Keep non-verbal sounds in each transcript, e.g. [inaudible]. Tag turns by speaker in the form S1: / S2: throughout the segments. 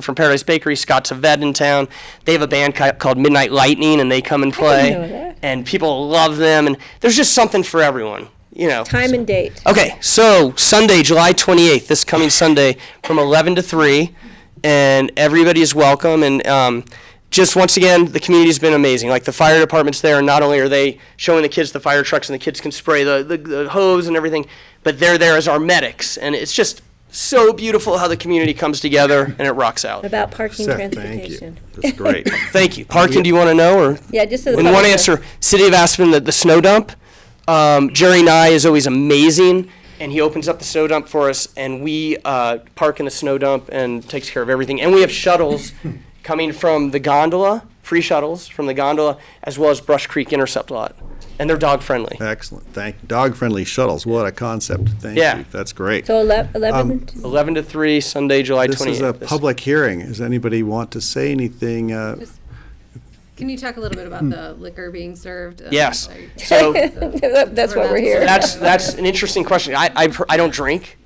S1: from Paradise Bakery, Scott Saved in town. They have a band ca- called Midnight Lightning, and they come and play.
S2: know that.
S1: And people love them, and there's just something for everyone, you know.
S2: Time and date.
S1: Okay, so Sunday, July 28th, this coming Sunday, from 11 to 3, and everybody is welcome. And um, just once again, the community's been amazing. Like the fire department's there, and not only are they showing the kids the fire trucks and the kids can spray the, the, the hose and everything, but they're there as our medics. And it's just so beautiful how the community comes together and it rocks out.
S2: About parking
S3: Seth, thank you.
S2: transportation.
S3: That's great.
S1: Thank you. Parking, do you want to know? or?
S2: Yeah, just so the.
S1: And one
S2: public-
S1: answer, City of Aspen, the, the snow dump. Um, Jerry Nye is always amazing, and he opens up the snow dump for us, and we uh, park in the snow dump and takes care of everything. And we have shuttles coming from the gondola, free shuttles from the gondola, as well as Brush Creek Intercept Lot, and they're dog friendly.
S3: Excellent. Thank, dog-friendly shuttles. What a concept. Thank
S1: Yeah.
S3: you. That's great.
S2: So ele- eleven,
S1: Eleven to three, Sunday, July
S3: This
S1: twenty
S3: is a
S1: eighth.
S3: public hearing. Does anybody want to say anything? uh,
S4: Can you talk a little bit about the liquor being served? Um,
S1: Yes.
S4: I-
S1: So
S3: [laughs] oh.
S2: [laughs] that's why we're here.
S1: that's that's an interesting question. I I, I don't drink,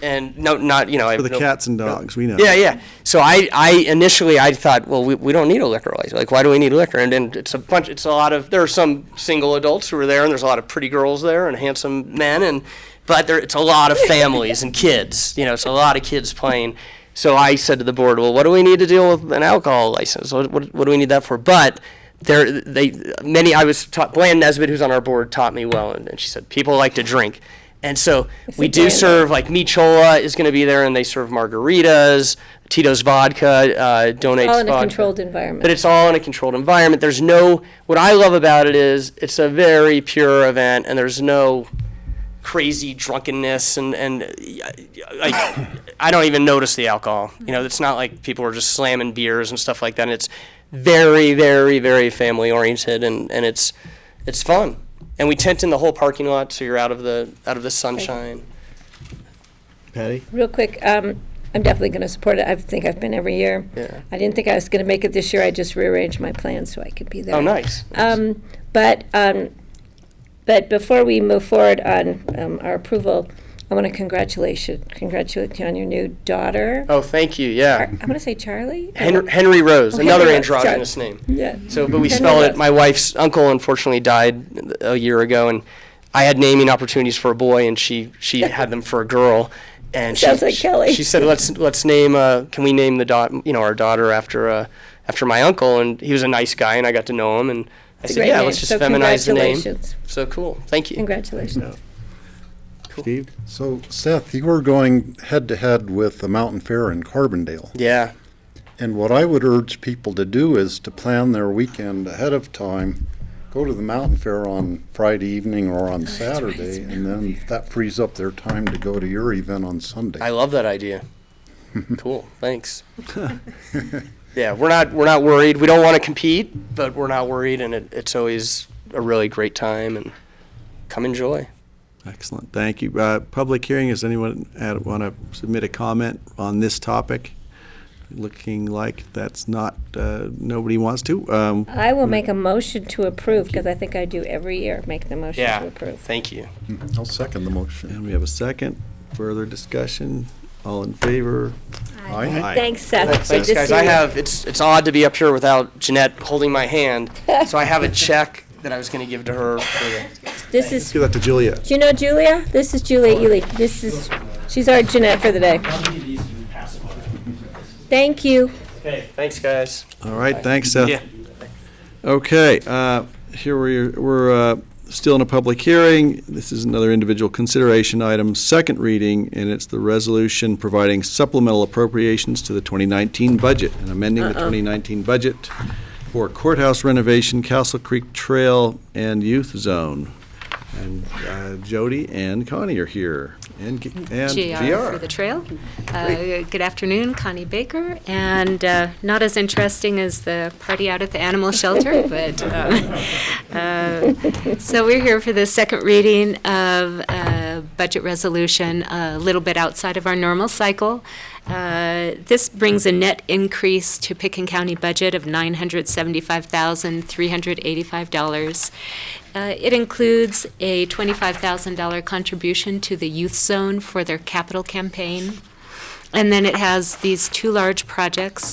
S1: and no, not you know. I
S3: For the
S1: no-
S3: cats and dogs, we know.
S1: Yeah, yeah. So I, I initially I thought, well, we, we don't need a liquor license. Like, why do we need liquor? And then it's a bunch. It's a lot of there are some single adults who are there, and there's a lot of pretty girls there and handsome men, and but there it's a lot of families and kids. You know, it's a lot of kids playing. So I said to the board, well, what do we need to deal with an alcohol license? What, what, what do we need that for? But there, they many. I was taught. Bland Nesbitt, who's on our board, taught me well, and, and she said people like to drink. And so we
S2: said
S1: do
S2: Bland.
S1: serve serve like Michola is going to be there, and they serve margaritas. Tito's Vodka uh, donates
S2: All in a
S1: vodka.
S2: controlled environment.
S1: But it's all in a controlled environment. There's no. What I love about it is it's a very pure event, and there's no crazy drunkenness and and uh, I, I don't even notice the alcohol. You know, it's not like people are just slamming beers and stuff like that. And it's very, very, very family oriented, and and it's it's fun. And we tent in the whole parking lot, so you're out of the out of the sunshine.
S3: Patty?
S2: Real quick, um, I'm definitely going to support it. I think I've been every year.
S1: Yeah.
S2: I didn't think I was going to make it this year. I just rearranged my plans so I could be there.
S1: Oh, nice.
S2: Um, but, um, but before we move forward on, um, our approval, I want to congratulate you, congratulate you on your new daughter.
S1: Oh, thank you.
S2: Ar-
S1: Yeah.
S2: I want to say Charlie?
S1: Henry, Henry Rose,
S2: Henry
S1: another
S2: Rose,
S1: androgynous
S2: sorry.
S1: name.
S2: Yeah.
S1: So, but we
S2: Henry
S1: spelled
S2: Rose.
S1: it. My wife's uncle unfortunately died a year ago, and I had naming opportunities for a boy, and she she had them for a girl. And she-
S2: Sounds like
S1: she,
S2: Kelly.
S1: She said, "Let's let's name. Uh, can we name the dot? You know, our daughter after uh, after my uncle?" And he was a nice guy, and I got to know him. And I
S2: It's a
S1: said,
S2: great
S1: "Yeah,
S2: name.
S1: let's just
S2: So
S1: feminize the name."
S2: congratulations.
S1: So cool. Thank you.
S2: Congratulations.
S3: Steve?
S5: So Seth, you were going head to head with the Mountain Fair in Carbondale.
S1: Yeah.
S5: And what I would urge people to do is to plan their weekend ahead of time. Go to the Mountain Fair on Friday evening or on Saturday, and then that frees up their time to go to your event on Sunday.
S1: I love that [laughs] idea. cool. Thanks. yeah, we're not we're not worried. We don't want to compete, but we're not worried, and it, it's always a really great time. And come enjoy.
S3: Excellent. Thank you. Uh, Public hearing, does anyone want to submit a comment on this topic? Looking like that's not, uh, nobody wants to. Um,
S2: I will make a motion to approve, because I think I do every year, make the motion to approve.
S1: Thank you.
S5: I'll second the motion.
S3: And we have a second. Further discussion? All in favor?
S5: Aye.
S2: Thanks, Seth. Good
S1: Thanks,
S2: to
S1: guys.
S2: see
S1: I
S2: you.
S1: have it's it's odd to be up here without Jeanette holding my hand. so I
S2: [laughs]
S1: have a check that I was going to give to her. For the,
S2: This is
S3: Give that to Julia.
S2: Do you know Julia? This is Julia Ely. This is, she's our Jeanette for the day. Thank you.
S1: okay. Thanks, guys.
S3: All right, thanks, Seth.
S1: Yeah.
S3: Okay, uh, here we're, we're uh, still in a public hearing. This is another individual consideration item, second reading, and it's the resolution providing supplemental appropriations to the 2019 budget and amending the 2019 budget for courthouse renovation, Castle Creek Trail, and Youth Zone. And uh, Jody and Connie are here, and G- and
S4: GR for
S3: GR.
S4: the trail. Uh, Good afternoon, Connie Baker, and uh, not as interesting as the party out at the animal shelter, [laughs] but, um, uh, so we're here for the second reading of uh, budget resolution, a little bit outside of our normal cycle. Uh, This brings a net increase to Picken County budget of $975,385. Uh, It includes a $25,000 contribution to the Youth Zone for their capital campaign, And then it has these two large projects